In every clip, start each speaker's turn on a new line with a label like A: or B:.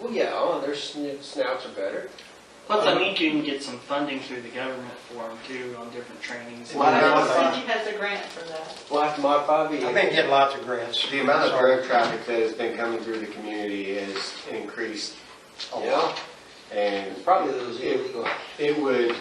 A: Well, yeah, oh, and their sn- snouts are better.
B: Plus, I think you can get some funding through the government for them too, on different trainings. and
A: Why not?
C: Cindy has a grant for that.
A: We'll have to modify the.
D: I've been getting lots of grants.
E: The amount of road traffic that has been coming through the community has increased a lot. And
A: Probably those
E: it
A: illegal
E: it would,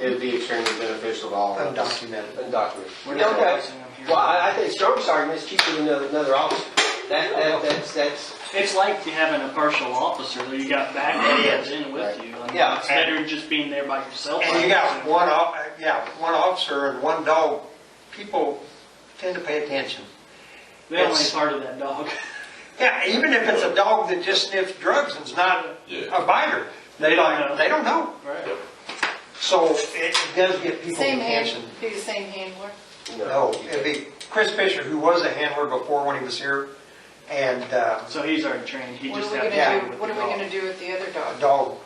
E: it'd be extremely beneficial to all of us.
D: Undocumented.
A: undocumented.
B: We're not
A: Okay.
B: raising them here.
A: Well, I, I think Strong's argument is cheaper than another, another officer. That, that, that's, that's,
B: It's like having a partial officer, though you got backups in with you. I mean,
A: Yeah.
B: It's better than just being there by yourself.
D: And you got one, off- yeah, one officer and one dog. People tend to pay attention.
B: They only
D: it's-
B: part of that dog.
D: Yeah, even if it's a dog that just sniffs drugs and is not
F: Yeah.
D: a biter,
B: They
D: they
B: don't know.
D: don't, they don't know.
B: Right.
D: So it it does get people's
C: Same
D: attention.
C: hand, be the same handler.
D: No, it'd be Chris Fisher, who was a handler before when he was here, and uh,
B: So he's already trained, he
C: What
B: just
C: are we
B: had to
D: have
C: gonna
B: deal
C: do,
B: with
C: what
B: the
C: are we
B: dog.
C: gonna do with the other
D: a
C: dog?
D: dog,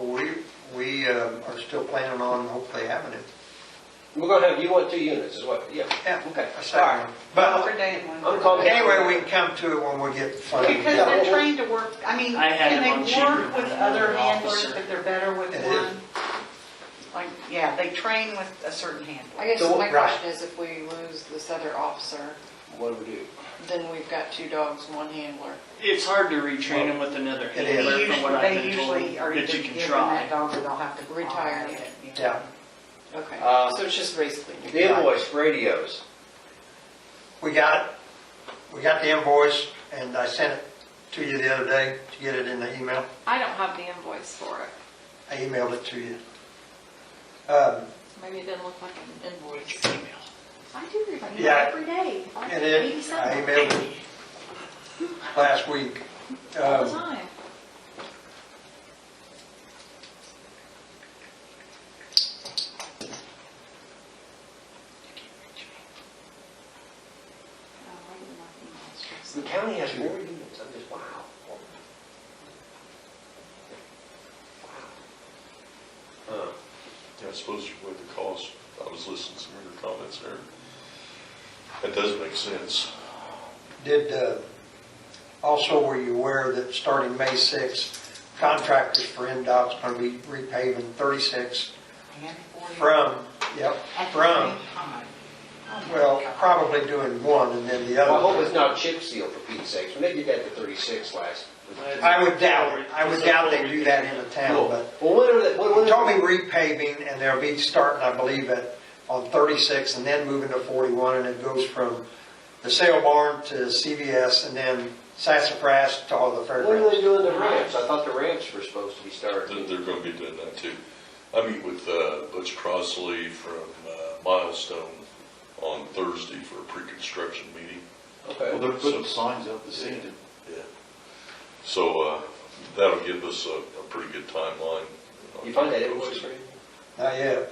D: we, we uh, are still planning on hopefully having it.
A: we're gonna have, you want two units is what, yeah.
D: Yeah,
A: Okay.
D: a
A: All right.
D: second one. But
A: I'm calling.
D: anyway, we can come to it when we get funding.
G: Because they're trained to work, I mean,
B: I had
G: can
B: him on
G: they
B: cheaper
G: work
B: than
G: with
B: another
G: other handlers,
B: officer.
G: but they're better with
D: It is.
G: one? Like, yeah, they train with a certain handler.
C: I guess
A: So,
C: my
D: right.
C: question is if we lose this other officer,
A: What do we do?
C: then we've got two dogs, one handler.
B: It's hard to retrain him with another
D: It
G: They
D: is.
B: handler, from what I've
G: usually, they
B: been told,
G: usually are
B: that
G: either
B: you can
G: given that
B: try.
G: dog or they'll have to.
C: Retire
G: buy
C: it.
D: Yeah,
C: Okay,
A: Uh,
C: so it's just basically. new
A: The
C: dogs.
A: invoice, for radios.
D: we got it. We got the invoice, and I sent it to you the other day to get it in the email.
H: I don't have the invoice for it.
D: I emailed it to you. Um,
H: Maybe it doesn't look like an invoice.
B: Email.
H: I do read it
D: Yeah.
H: every day. I
D: It
H: read
D: is, I
H: something
D: emailed it last week.
H: All the
D: Um,
H: time. Oh, I read my emails.
A: The county has more units, I'm just, wow. Wow. Huh.
F: Yeah, I suppose with the cost, I was listening to some of your comments there. That does make sense.
D: Did, uh, also, were you aware that starting May 6th, contractors for MDOT's going to be repaving 36 from, yep, from,
G: Oh,
D: well, probably doing one and then the
A: Well, I hope
D: other.
A: it's not chip seal for Pete's sakes, when they did that to thirty-six last.
D: I would doubt it. I would doubt they do that in a town, but
A: Well, when are they, when, when?
D: he told me repaving and they'll be starting, I believe, at, on 36 and then moving to 41 and it goes from the sale barn to CVS and then Sassafras to all the
A: When are they
D: fairgrounds.
A: doing the ramps? I thought the ramps were supposed to be
F: They're,
A: started.
F: they're gonna be doing that too. I meet with, uh, Butch Crossley from, uh, Milestone on Thursday for a pre-construction meeting.
A: Okay.
I: Well, they're putting signs up to see it.
F: Yeah. So, uh, that'll give us a, a pretty good timeline.
A: You find that invoice for you?
D: Not yet.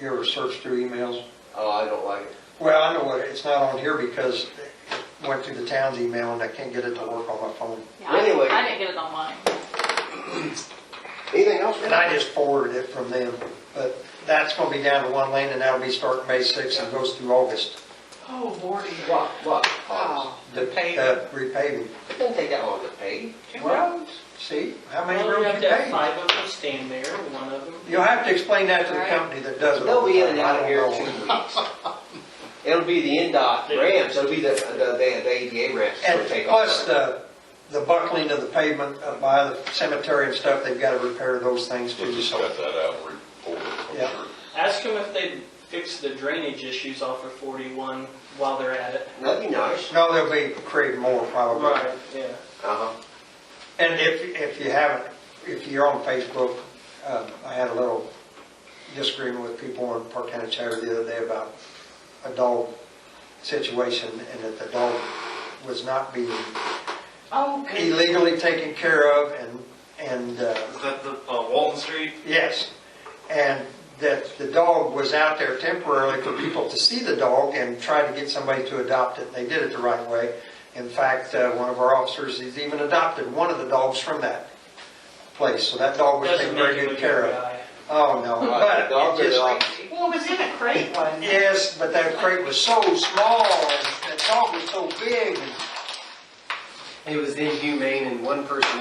D: You ever search through emails?
A: Oh, I don't like it.
D: Well, I know what, it's not on here because it went through the town's email and I can't get it to work on my phone.
H: Yeah, I-
A: Anyway.
H: I didn't get it on mine.
A: Anything else?
D: And I just forwarded it from them, but that's gonna be down to one lane and that'll be starting May sixth and goes through August.
G: Oh, Lordy.
A: What, what?
G: Oh,
D: The
G: paving.
D: uh, Repaving.
A: It doesn't take that long to pave.
G: Roads.
D: See, how many
B: Well, you
D: roads
B: have
D: you
B: to have
D: pave?
B: five of them stand there, one of them.
D: You'll have to explain that to the
C: Right.
D: company that does it. all
A: They'll be in
D: the
A: and
D: time.
A: out of
D: I
A: here in
D: don't
A: two
D: know.
A: weeks. It'll be the NDOT ramps, it'll be the, the, the ADA ramps that'll
D: And
A: take off.
D: plus the, the buckling of the pavement up by the cemetery and stuff, they've gotta repair those things
F: We'll
D: too,
F: just
D: so.
F: cut that out and report it, I'm
D: Yeah.
F: sure.
B: Ask them if they fix the drainage issues off of 41 while they're at it.
A: That'd be nice.
D: No, they'll be creating more probably.
B: Yeah.
A: Uh-huh.
D: And if, if you haven't, if you're on Facebook, uh, I had a little disagreement with people in Park County Chatter the other day about a dog situation and that the dog was not being
G: Oh, good.
D: illegally taken care of and, and, uh,
J: Is that the, uh, Walton Street?
D: yes. And that the dog was out there temporarily for people to see the dog and try to get somebody to adopt it, and they did it the right way. In fact, uh, one of our officers, he's even adopted one of the dogs from that place, so that dog was
B: Doesn't
D: taken
B: make
D: very
B: him a
D: good
B: good
D: care of.
B: guy.
D: Oh, no,
A: Right, dogs
D: but
A: are
D: it
A: the
D: just,
A: opposite.
G: Well, it was in a crate one.
D: yes, but that crate was so small, and that dog was so big, and
E: It was inhumane and one person